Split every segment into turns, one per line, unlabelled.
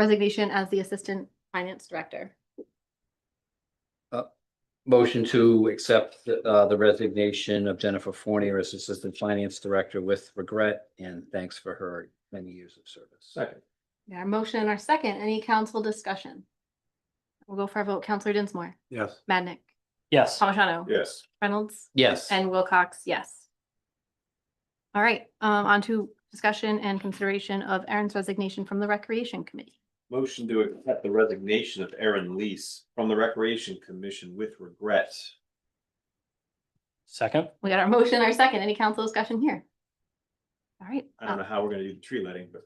resignation as the Assistant Finance Director.
Motion to accept the, uh, the resignation of Jennifer Fournier as Assistant Finance Director with regret and thanks for her many years of service.
Second.
Our motion and our second, any council discussion? We'll go for a vote. Counselor Dinsmore,
Yes.
Madnick,
Yes,
Palmigano.
Yes.
Reynolds.
Yes,
And Wilcox, yes. All right, um, on to discussion and consideration of Aaron's resignation from the Recreation Committee.
Motion to accept the resignation of Aaron Lease from the Recreation Commission with regret.
second,
We got our motion, our second, any council discussion here? All right,
I don't
uh,
know how we're gonna do the tree letting, but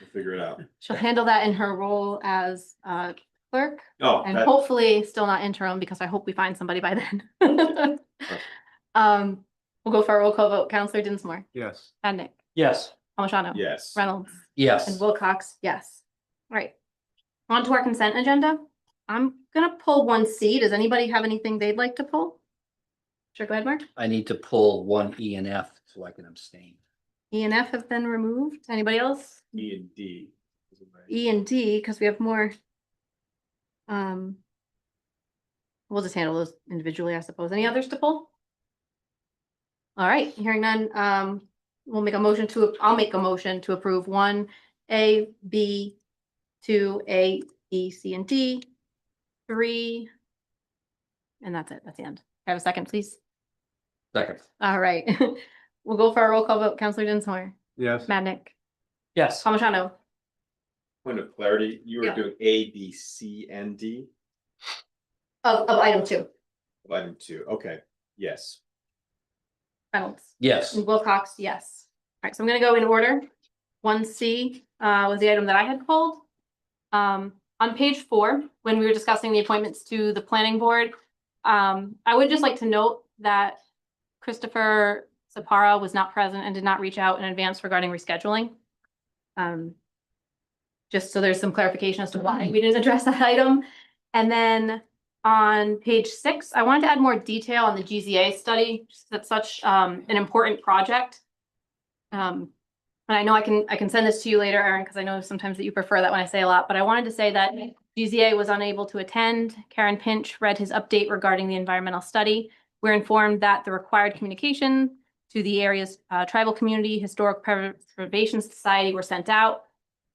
we'll figure it out.
she'll handle that in her role as uh, clerk
Oh,
and
that-
hopefully still not interim because I hope we find somebody by then. Um, we'll go for a roll call vote. Counselor Dinsmore,
yes.
Adnick,
yes,
Palmigano.
Yes. E
Reynolds. And
yes,
Wilcox, yes. All right. On to our consent agenda. I'm gonna pull one C. Does anybody have anything they'd like to pull? Sure, go ahead, Mark.
I need to pull one E and F so I can abstain.
E and F have been removed. Anybody else?
E and D.
E and D, because we have more. Um. We'll just handle those individually, I suppose. Any others to pull? All right, hearing none, um, we'll make a motion to, I'll make a motion to approve one, A, B, two, A, B, C, and D, three. And that's it, that's the end. Can I Have a second, please.
Second,
All right, we'll go for our roll call vote. Counselor Dinsmore,
Yes.
Madnick,
yes,
Palmigano,
Point of clarity, you
Yeah.
were doing A, B, C, and D,
of, of item two,
of item two, okay, yes.
Reynolds.
yes,
And Wilcox, yes. All right, so I'm gonna go in order. One C uh was the item that I had pulled. Um, on page four, when we were discussing the appointments to the planning board, um, I would just like to note that Christopher Sapara was not present and did not reach out in advance regarding rescheduling. Um, just so there's some clarification as to why we didn't address that item. And then on page six, I wanted to add more detail on the GZA study, just that's such um an important project. Um, and I know I can, I can send this to you later, Erin, because I know sometimes that you prefer that when I say a lot, but I wanted to say that GZA was unable to attend. Karen Pinch read his update regarding the environmental study. We're informed that the required communication to the area's uh, tribal community, historic preservation society were sent out.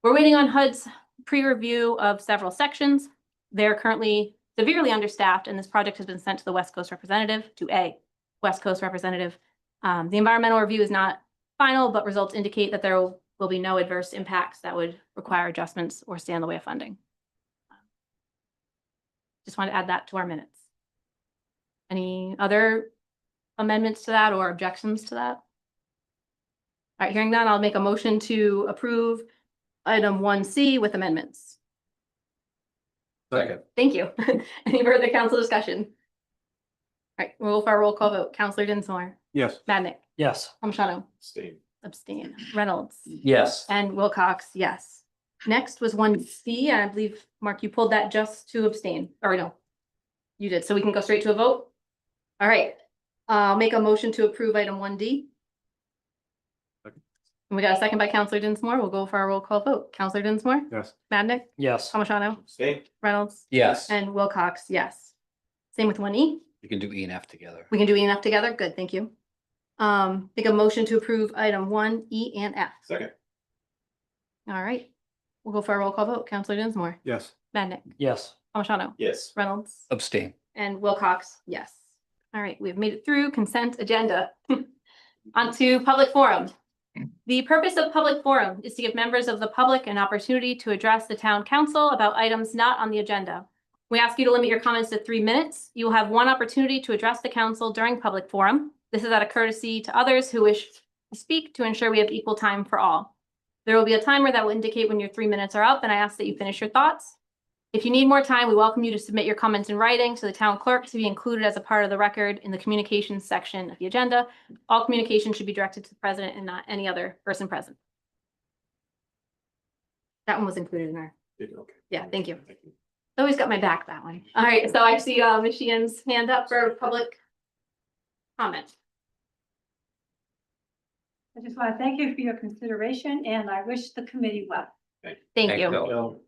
We're waiting on HUD's pre-review of several sections. They're currently severely understaffed, and this project has been sent to the West Coast representative, to a West Coast representative. Um, the environmental review is not final, but results indicate that there will be no adverse impacts that would require adjustments or stand in the way of funding. Just want to add that to our minutes. Any other amendments to that or objections to that? All right, hearing none, I'll make a motion to approve item one C with amendments.
second,
Thank you. Any further council discussion? All right, we'll go for our roll call vote. Counselor Dinsmore,
Yes.
Madnick,
yes,
Palmigano,
Same,
abstain, Reynolds,
yes,
and Wilcox, yes. Next was one C, and I believe, Mark, you pulled that just to abstain, or no? You did, so we can go straight to a vote? All right, I'll make a motion to approve item one D.
Second.
We got a second by Counselor Dinsmore. We'll go for our roll call vote. Counselor Dinsmore,
Yes.
Madnick,
yes,
Palmigano,
same,
Reynolds,
yes.
and Wilcox, yes. Same with one E.
You can do E and F together.
We can do E and F together? Good, thank you. Um, make a motion to approve item one, E and F.
second,
All right. We'll go for a roll call vote. Counselor Dinsmore,
yes,
Madnick,
yes,
Palmigano,
yes.
Reynolds,
Abstain,
and Wilcox, yes. All right, we've made it through consent agenda. Onto public forum. The purpose of public forum is to give members of the public an opportunity to address the town council about items not on the agenda. We ask you to limit your comments to three minutes. You will have one opportunity to address the council during public forum. This is out of courtesy to others who wish to speak to ensure we have equal time for all. There will be a timer that will indicate when your three minutes are up, and I ask that you finish your thoughts. If you need more time, we welcome you to submit your comments in writing to the town clerk to be included as a part of the record in the communications section of the agenda. All communication should be directed to the president and not any other person present. That one was included in our,
Okay.
Yeah, thank you. I always got my back that way. All right, so I see uh, Ms. Sheehan's hand up for public comment.
I just want to thank you for your consideration and I wish the committee well.
Thank
Thank
you.
you.
No,